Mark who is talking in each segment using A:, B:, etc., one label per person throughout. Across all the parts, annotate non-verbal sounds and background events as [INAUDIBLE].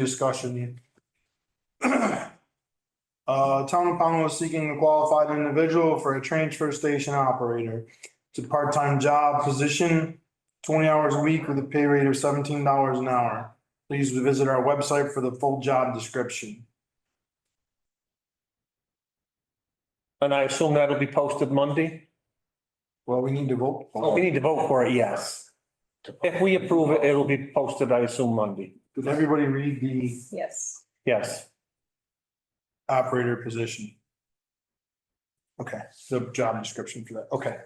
A: Discussion. [CLEARS THROAT] Uh, Town of Pownell is seeking a qualified individual for a transfer station operator. It's a part-time job position, twenty hours a week with a pay rate of seventeen dollars an hour. Please visit our website for the full job description.
B: And I assume that'll be posted Monday?
A: Well, we need to vote.
B: We need to vote for it, yes. If we approve it, it'll be posted, I assume, Monday.
A: Did everybody read the
C: Yes.
B: Yes.
A: operator position? Okay, the job description for that, okay.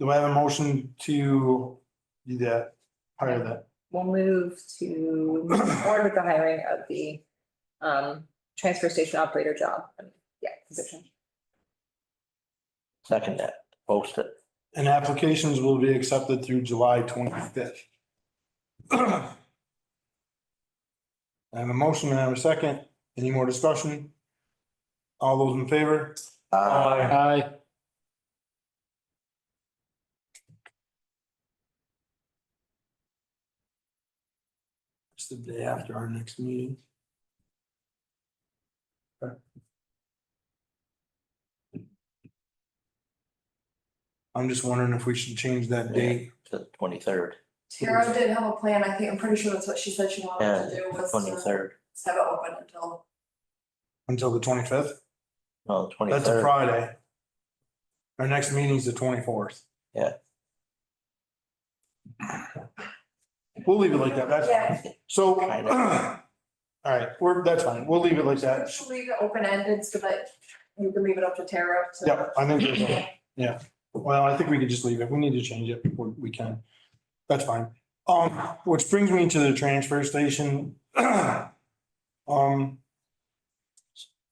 A: Do I have a motion to do that, hire that?
C: We'll move to forward [COUGHS] with the hiring of the um transfer station operator job. Yeah, position.
D: Second that, post it.
A: And applications will be accepted through July twenty-fifth. [CLEARS THROAT] I have a motion and I have a second. Any more discussion? All those in favor?
B: Aye.
A: Aye. It's the day after our next meeting. Okay. I'm just wondering if we should change that date.
D: To the twenty-third,
E: Tara did have a plan, I think, I'm pretty sure that's what she said she wanted to do, Oh, was uh, to
D: twenty-third,
E: have it open until,
A: Until the twenty-fifth?
D: no,
A: That's a
D: twenty-third.
A: Friday. Our next meeting's the twenty-fourth.
D: Yeah.
A: We'll leave it like that, that's,
E: yeah,
A: so, [CLEARS THROAT] all
D: Kinda.
A: right, we're, that's fine, we'll leave it like that.
E: she'll leave it open-ended so that you can leave it up to Tara to.
A: Yeah, I think, there's a- yeah, well, I think we could just leave it, we need to change it, we we can, that's fine. Um, which brings me to the transfer station. [CLEARS THROAT] Um,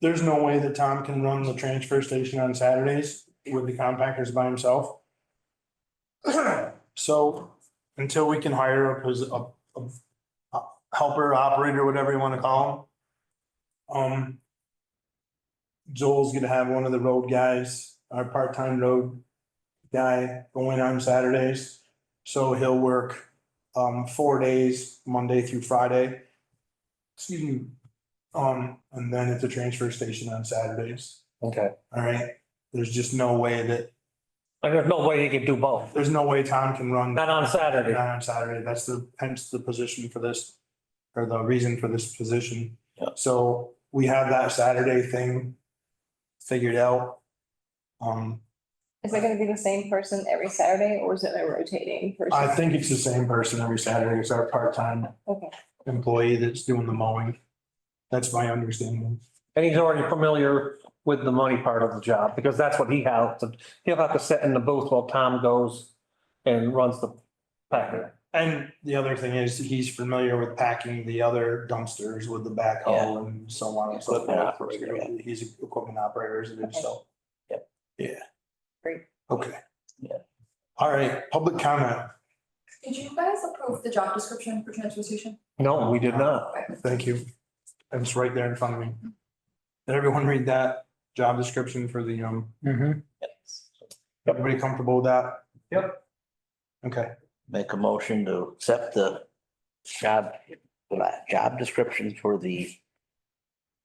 A: there's no way that Tom can run the transfer station on Saturdays with the compactors by himself. [CLEARS THROAT] So until we can hire a, pos- a, a- a helper, operator, whatever you want to call him. Um, Joel's gonna have one of the road guys, our part-time road guy going on Saturdays. So he'll work um four days, Monday through Friday. Excuse me. Um, and then at the transfer station on Saturdays,
B: Okay.
A: all right? There's just no way that,
B: And there's no way you can do both.
A: there's no way Tom can run
B: Not on Saturday.
A: not on Saturday. That's the, hence the position for this, or the reason for this position.
D: Yeah.
A: So we have that Saturday thing figured out. Um,
C: Is it gonna be the same person every Saturday or is it a rotating person?
A: I think it's the same person every Saturday. It's our part-time
C: Okay,
A: employee that's doing the mowing. That's my understanding.
B: And he's already familiar with the money part of the job because that's what he has to, he'll have to sit in the booth while Tom goes and runs the packer.
A: And the other thing is he's familiar with packing the other dumpsters with the backhoe and so on and so
D: Equipment
A: forth.
D: operator, yeah.
A: He's equipment operators and
C: Okay.
A: so.
D: Yep.
A: Yeah.
C: Great.
A: Okay.
D: Yeah.
A: All right, public comment.
E: Did you guys approve the job description for transfer station?
B: No, we did not.
E: Okay.
A: Thank you. It's right there in front of me. Did everyone read that job description for the, um, everybody comfortable with that? Yep. Okay.
D: Make a motion to accept the job, job description for the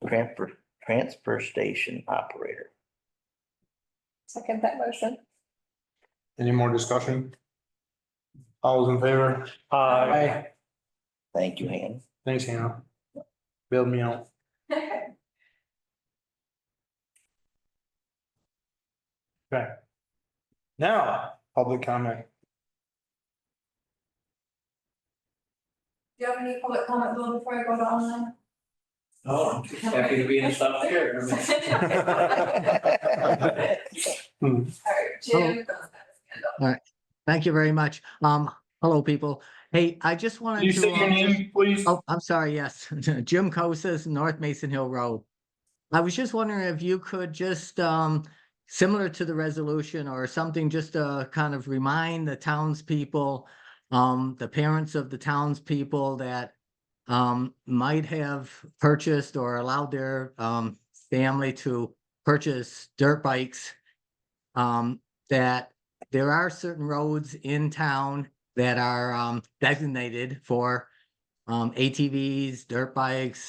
D: transfer, transfer station operator.
C: second that motion.
A: Any more discussion? All those in favor?
B: Uh,
D: Thank you, Han.
A: Thanks, Hannah. Build me out. Okay. Now, public comment. [LAUGHS]
E: Do you have any public comment though before I go to online?
F: No, Oh, I'm just happy to be in the South Shore. I mean,
E: [LAUGHS] Alright,
A: Oh.
E: Jim.
G: Thank you very much. Um, hello, people. Hey, I just wanted to.
A: Can you say your
G: um,
A: name, please?
G: Oh, I'm sorry, yes. [LAUGHS] Jim Cosas, North Mason Hill Road. I was just wondering if you could just, um, similar to the resolution or something, just to kind of remind the townspeople, um, the parents of the townspeople that um, might have purchased or allowed their, um, family to purchase dirt bikes. Um, that there are certain roads in town that are, um, designated for um, ATVs, dirt bikes,